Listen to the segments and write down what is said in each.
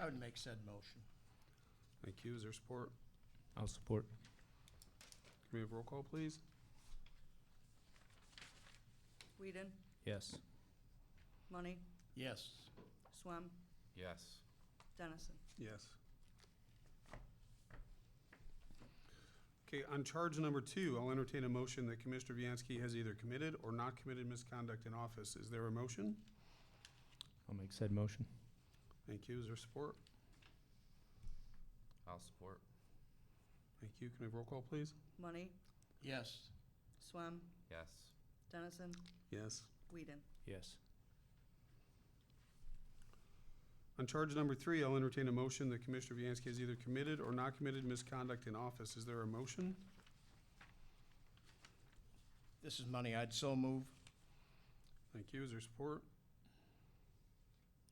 I would make said motion. Thank you. Is there support? I'll support. Can we have roll call, please? Whedon, Yes. Money, Yes. Swam, Yes. Dennison. Yes. Okay, on charge number two, I'll entertain a motion that Commissioner Viancy has either committed or not committed misconduct in office. Is there a motion? I'll make said motion. Thank you. Is there support? I'll support. Thank you. Can we have roll call, please? Money, Yes. Swam, Yes. Dennison, Yes. Whedon. Yes. On charge number three, I'll entertain a motion that Commissioner Viancy has either committed or not committed misconduct in office. Is there a motion? This is money I'd so move. Thank you. Is there support?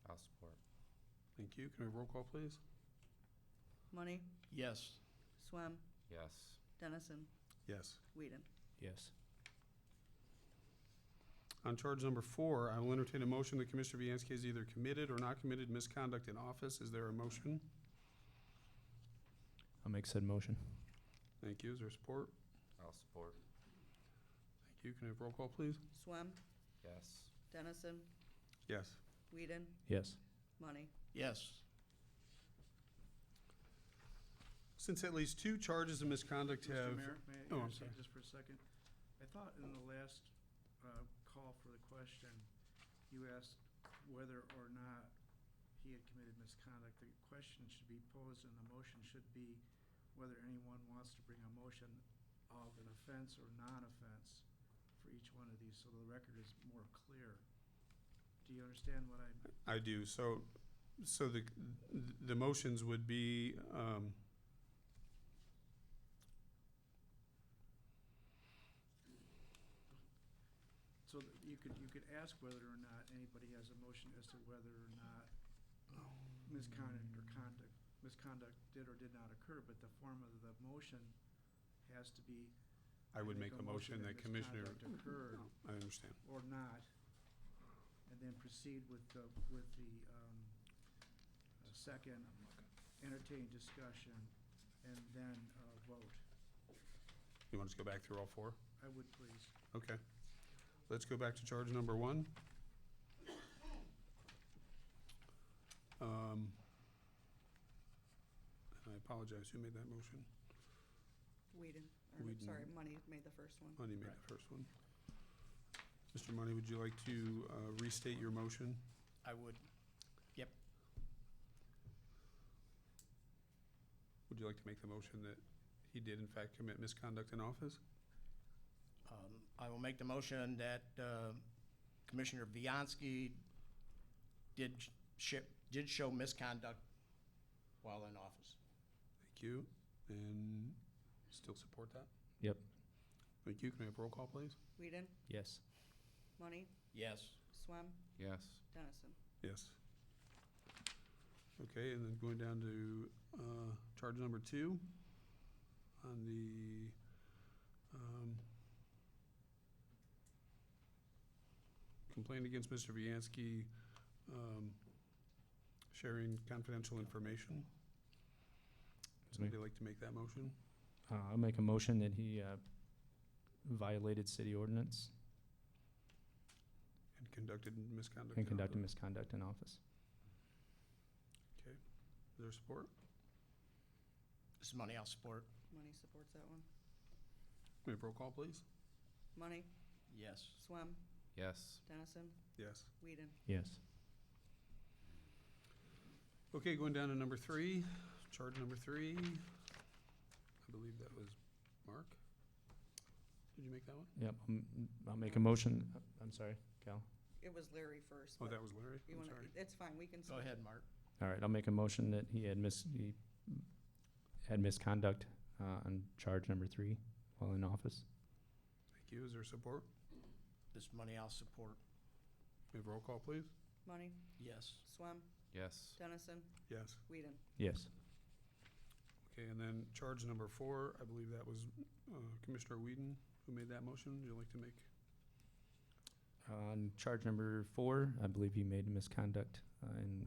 I'll support. Thank you. Can we have roll call, please? Money, Yes. Swam, Yes. Dennison, Yes. Whedon. Yes. On charge number four, I will entertain a motion that Commissioner Viancy has either committed or not committed misconduct in office. Is there a motion? I'll make said motion. Thank you. Is there support? I'll support. Thank you. Can I have roll call, please? Swam, Yes. Dennison, Yes. Whedon, Yes. Money. Yes. Since at least two charges of misconduct Mr. have. Mayor, may I Oh, I'm interject sorry. just for a second? I thought in the last uh, call for the question, you asked whether or not he had committed misconduct. The question should be posed and the motion should be whether anyone wants to bring a motion of an offense or non-offense for each one of these, so the record is more clear. Do you understand what I'm, I do. So, so the, the motions would be, um, so that you could, you could ask whether or not anybody has a motion as to whether or not misconduct or conduct, misconduct did or did not occur, but the form of the motion has to be. I would make a motion that Commissioner. misconduct Occurred I understand. or not, and then proceed with the, with the, um, uh, second, entertain discussion, and then, uh, vote. You want us to go back through all four? I would please. Okay. Let's go back to charge number one. Um, and I apologize, who made that motion? Whedon, or, Whedon. sorry, Money made the first one. Money made the first one. Mr. Money, would you like to uh, restate your motion? I would. Would you like to make the motion that he did in fact commit misconduct in office? Um, I will make the motion that uh, Commissioner Viancy did sh- ship, did show misconduct while in office. Thank you, and still support that? Yep. Thank you, can I have roll call, please? Whedon, Yes. Money, Yes. Swam, Yes. Dennison. Yes. Okay, and then going down to uh, charge number two on the, um, complaint against Mr. Viancy, um, sharing confidential information. Somebody like to make that motion? Uh, I'll make a motion that he uh, violated city ordinance And conducted misconduct. and in conducted office. misconduct in office. Okay, is there support? This is money I'll support. Money supports that one. May I have roll call, please? Money, Yes. Swam, Yes. Dennison, Yes. Whedon. Yes. Okay, going down to number three, charge number three. I believe that was Mark. Did you make that one? Yep. I'm- I'll make a motion. uh, I'm sorry, Cal. It was Larry first. Oh, but that was Larry. you I'm wanna- sorry. It's fine, we can. Go skip. ahead, Mark. All right. I'll make a motion that he had mis he had misconduct uh, on charge number three while in office. Thank you. Is there support? This money I'll support. May I have roll call, please? Money, Yes. Swam, Yes. Dennison, Yes. Whedon. Yes. Okay, and then charge number four, I believe that was uh, Commissioner Whedon who made that motion. Would you like to make? On charge number four, I believe he made misconduct uh, in